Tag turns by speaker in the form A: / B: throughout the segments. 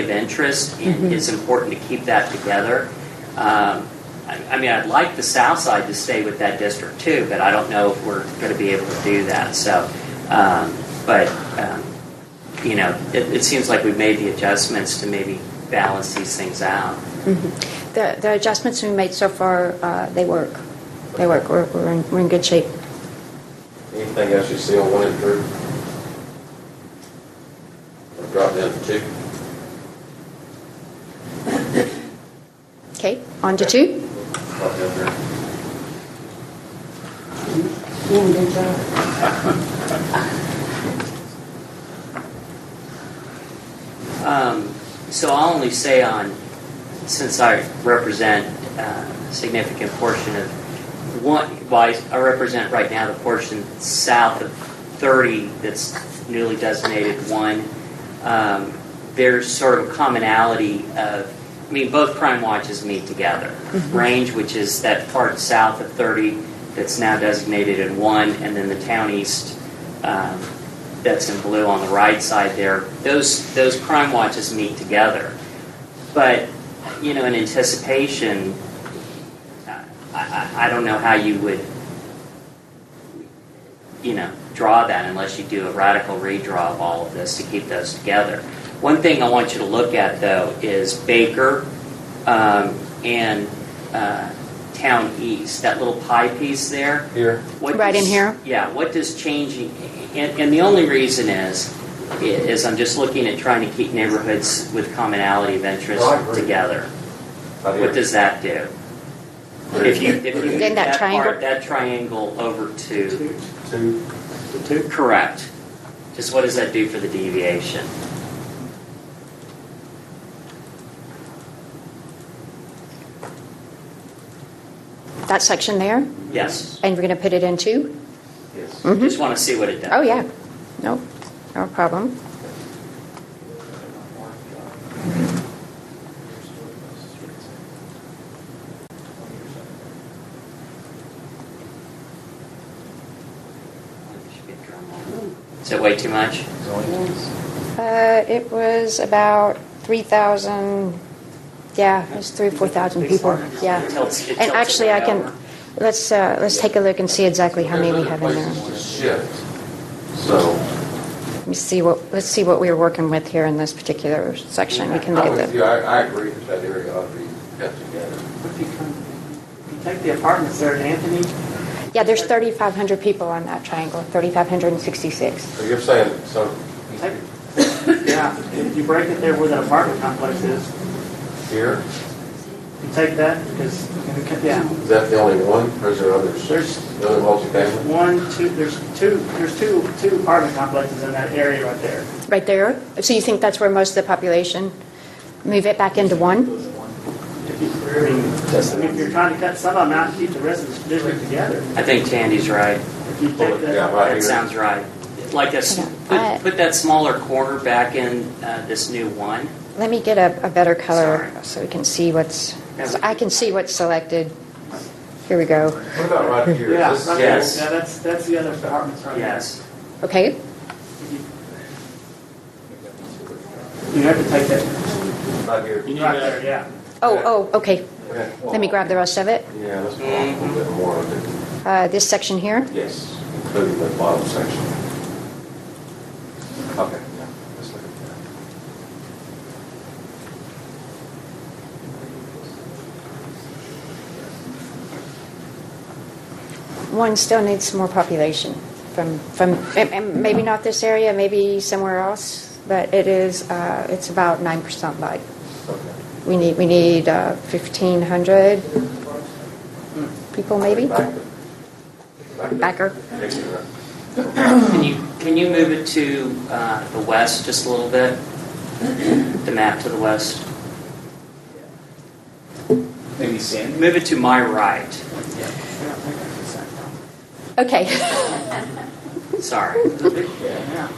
A: of interest, and it's important to keep that together. Um, I I mean, I'd like the south side to stay with that district too, but I don't know if we're going to be able to do that, so. um, But, um, you know, it, it seems like we've made the adjustments to maybe balance these things out.
B: Mm-hmm. The, the adjustments we made so far, uh, they work. They work. We're, we're in, we're in good shape.
C: Anything else you see on one and through? Or Drop down to two?
B: Okay, on to two.
C: Drop down there.
A: Um, So I'll only say on, since I represent uh, a significant portion of, one, well, I- I represent right now the portion south of 30 that's newly designated one. Um, There's sort of commonality of, I mean, both crime watches meet together. Range, which is that part south of 30 that's now designated in one, and then the town east um, that's in blue on the right side there, those, those crime watches meet together. But, you know, in anticipation, I, I, I don't know how you would, you know, draw that unless you do a radical redraw of all of this to keep those together. One thing I want you to look at, though, is Baker um, and uh, Town East, that little pie piece there.
C: Here.
A: What
B: Right in
A: does-
B: here?
A: Yeah, what does changing, and, and the only reason is, is I'm just looking at trying to keep neighborhoods with commonality of interest
C: Well, I agree. Oh,
A: together.
C: Right here.
A: What does that do? If you, if you move
B: Then that
A: that
B: triangle-
A: part, that triangle over to,
C: Two.
A: correct. Just what does that do for the deviation?
B: That section there,
A: Yes,
B: and we're going to put it in two.
C: Yes.
A: just want to see what it does.
B: Mm-hmm. Oh yeah, no, no problem.
A: Is that way too much?
B: Uh, it was about three thousand. Yeah, it was three or four thousand people. Yeah,
A: It tilts- it
B: and
A: tilts
B: actually,
A: it
B: I
A: right
B: can.
A: over.
B: Let's uh, let's take a look and see exactly how many we have in there.
C: There's other places to Shift, so.
B: Let me see what let's see what we were working with here in this particular section. We can look
C: I'm
B: at
C: with
B: the.
C: you, I, I agree that that area ought to be cut together.
D: If you come- if you take the apartments there at Anthony,
B: Yeah, there's 3,500 people on that triangle, 3,566.
C: So you're saying some,
D: yeah, if you break it there where that apartment complex is,
C: here,
D: you take that, because, yeah,
C: is that the only one, or is there others?
D: There's-
C: Another multifamily?
D: one, two, there's two, there's two, two apartment complexes in that area right there.
B: Right there? So you think that's where most of the population, move it back into one?
D: If you, I mean, if you're trying to cut some of them out, keep the rest of the district together,
A: I think Tandy's right.
D: if you take
C: Yeah,
D: that,
C: right
A: That
C: here.
A: sounds right. Like a, s-
B: Okay. I-
A: put, put that smaller corner back in uh, this new one.
B: Let me get a, a better color
A: Sorry.
B: so we can see what's,
A: Yeah.
B: so I can see what's selected. Here we go.
C: What about right here?
D: yeah,
C: This-
D: right there.
A: Yes.
D: yeah, that's, that's the other apartments right there.
A: Yes.
B: Okay,
D: If You you have to take that,
C: Right here.
D: right there, yeah.
B: oh, oh, okay.
C: Okay.
B: Let me grab the rest of it.
C: Yeah, let's go on a little bit more of it.
B: Uh, This section here,
C: Yes, including the bottom section. Okay, yeah, let's look at
B: one still needs some more population from, from, and- and maybe not this area, maybe somewhere else, but it is, uh, it's about 9% light.
C: that. Okay.
B: We need, we need uh, 1,500 people, maybe?
C: Back.
B: Backer.
A: Can you, can you move it to uh, the west just a little bit? The map to the west?
E: Maybe Sandy?
A: Move it to my right.
B: Okay.
A: Sorry.
E: Yeah.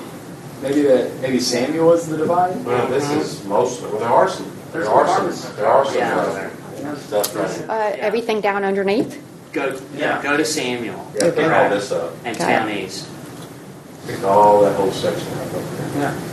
E: Maybe that, maybe Sandy was the divide?
C: Well, this is mostly, well, there are some, there are some, there are some
A: Yeah.
C: uh, stuff right here.
B: Uh, Everything down underneath?
A: Go,
D: Yeah.
A: go to Samuel
C: Yeah, pick all this up,
A: and
B: Got it.
A: Town East.
C: pick all that whole section up over there.
D: Yeah.